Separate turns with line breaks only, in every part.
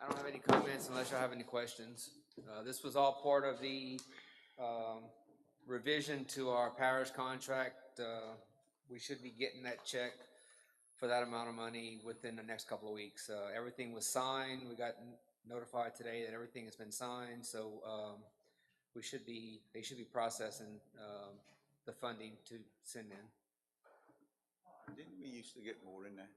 I don't have any comments unless y'all have any questions. Uh, This was all part of the um, revision to our parish contract. Uh, We should be getting that check for that amount of money within the next couple of weeks. Uh, Everything was signed. We got notified today that everything has been signed, so um, we should be, they should be processing um, the funding to send in.
Didn't we used to get more in there?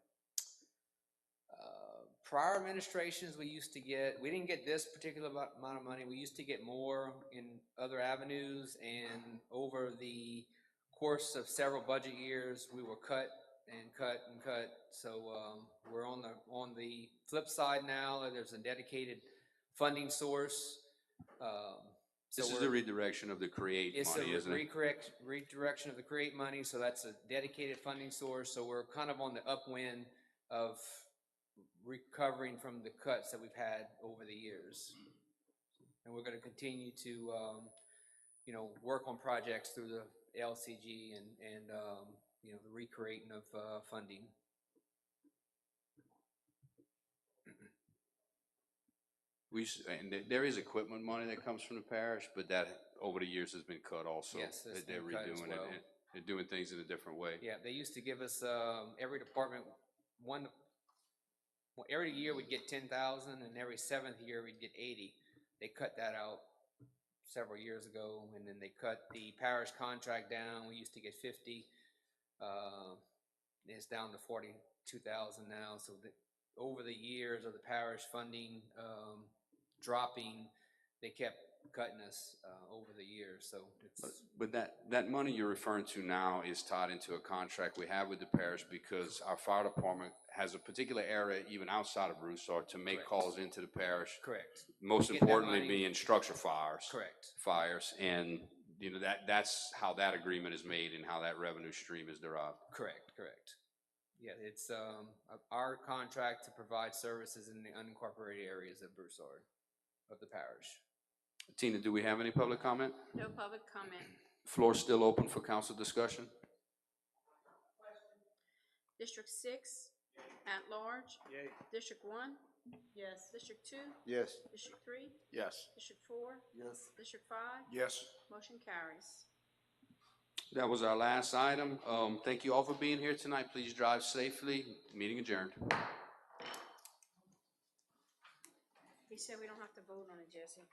uh, prior administrations, we used to get, we didn't get this particular amo- amount of money, we used to get more in other avenues, and over the course of several budget years, we were cut and cut and cut, so, um, we're on the, on the flip side now, and there's a dedicated funding source, um. so
This is
we're-
the redirection of the create
it's a
money, isn't it?
recorrect, redirection of the create money, so that's a dedicated funding source, so we're kind of on the upwind of recovering from the cuts that we've had over the years. And we're gonna continue to, um, you know, work on projects through the LCG and, and, um, you know, the recreating of, uh, funding.
We, s- and there- there is equipment money that comes from the parish, but that over the years has been cut also.
Yes, that's
They- They're
been cut as
redoing it
well.
and- They're doing things in a different way.
Yeah, they used to give us, um, every department, one, well, every year we'd get ten thousand, and every seventh year we'd get eighty. They cut that out several years ago, and then they cut the parish contract down, we used to get fifty. Uh, it's down to forty-two thousand now, so the, over the years of the parish funding, um, dropping, they kept cutting us, uh, over the years, so
But-
it's,
But that, that money you're referring to now is tied into a contract we have with the parish because our fire department has a particular area even outside of Broussard to make
Correct.
calls into the parish.
correct,
Most
Get that
importantly
money-
being structure fires.
correct,
Fires and, you know, that, that's how that agreement is made and how that revenue stream is derived.
Correct, correct. Yeah, it's um, our contract to provide services in the unincorporated areas of Broussard, of the parish.
Tina, do we have any public comment?
No public comment.
Floor still open for council discussion?
District six, at large. District one? Yes. District two?
Yes.
District three?
Yes.
District four?
Yes.
District five?
Yes.
Motion carries.
That was our last item. Um, thank you all for being here tonight. Please drive safely. Meeting adjourned.
He said we don't have to vote on it, Jesse.